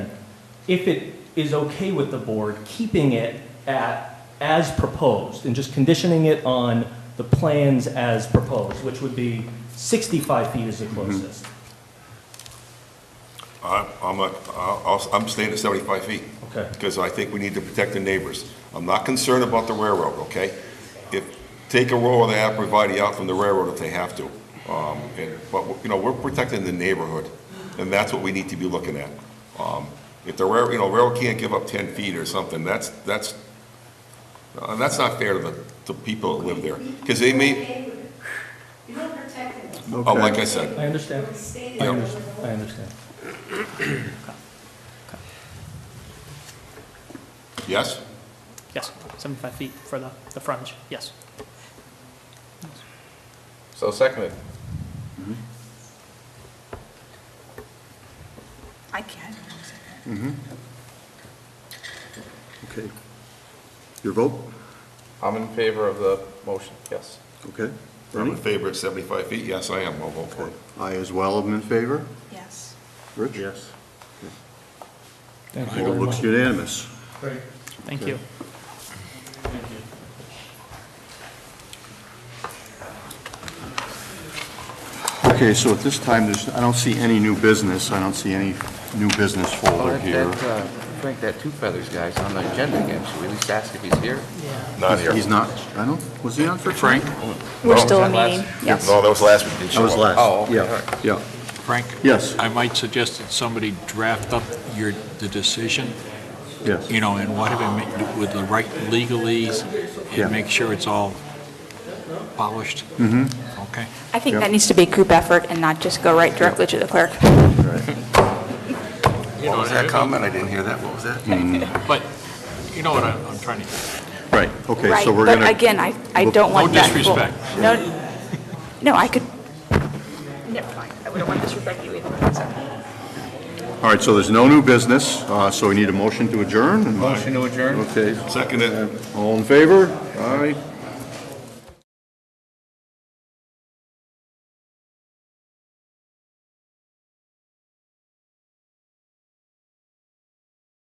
if it is okay with the board, keeping it at, as proposed, and just conditioning it on the plans as proposed, which would be 65 feet is the closest. I- I'm, a- I'll- I'm staying at 75 feet. Okay. Because I think we need to protect the neighbors. I'm not concerned about the railroad, okay? If, take a row of the Aprovidee out from the railroad if they have to. Um, and- But, you know, we're protecting the neighborhood, and that's what we need to be looking at. Um, If the rail, you know, railroad can't give up 10 feet or something, that's, that's, uh, that's not fair to the, to people that live there. Because they may, You don't protect them. oh, like I said, I understand. I understand, I understand. yes? Yes, 75 feet for the, the frontage, yes. So seconded. I can. Okay. Your vote? I'm in favor of the motion, yes. Okay. I'm in Bernie? favor of 75 feet, yes, I am, I'll vote for it. I as well am in favor. Yes. Rich? Yes. Thank you It very much. looks unanimous. Thank you. Okay, so at this time, there's, I don't see any new business. I don't see any new business folder here. Frank, that Two Feathers guy's on the agenda again, should we at least ask if he's here? Not here. He's not, I don't, was he on for Frank? No, We're still was in that meeting, last- yes. Oh, that was last week. I was last. Oh, okay, Yeah, all right. Yeah, Frank? Yes. I might suggest that somebody draft up your, the decision, yes. you know, and whatever, ma- with the right legalese, Yeah. and make sure it's all polished. Mm-hmm. Okay? I think that needs to be a group effort and not just go right directly to the clerk. What was that comment? I didn't hear that. What was that? But, you know what I'm I'm trying to, Right, okay, Right, so we're going to... But again, I, I don't want no that. full- disrespect. No, no, I could, never mind, I wouldn't want to disrespect you either, so. All right, so there's no new business, uh, so we need a motion to adjourn? and- Motion to adjourn? Okay, Second it. all in favor? Aye.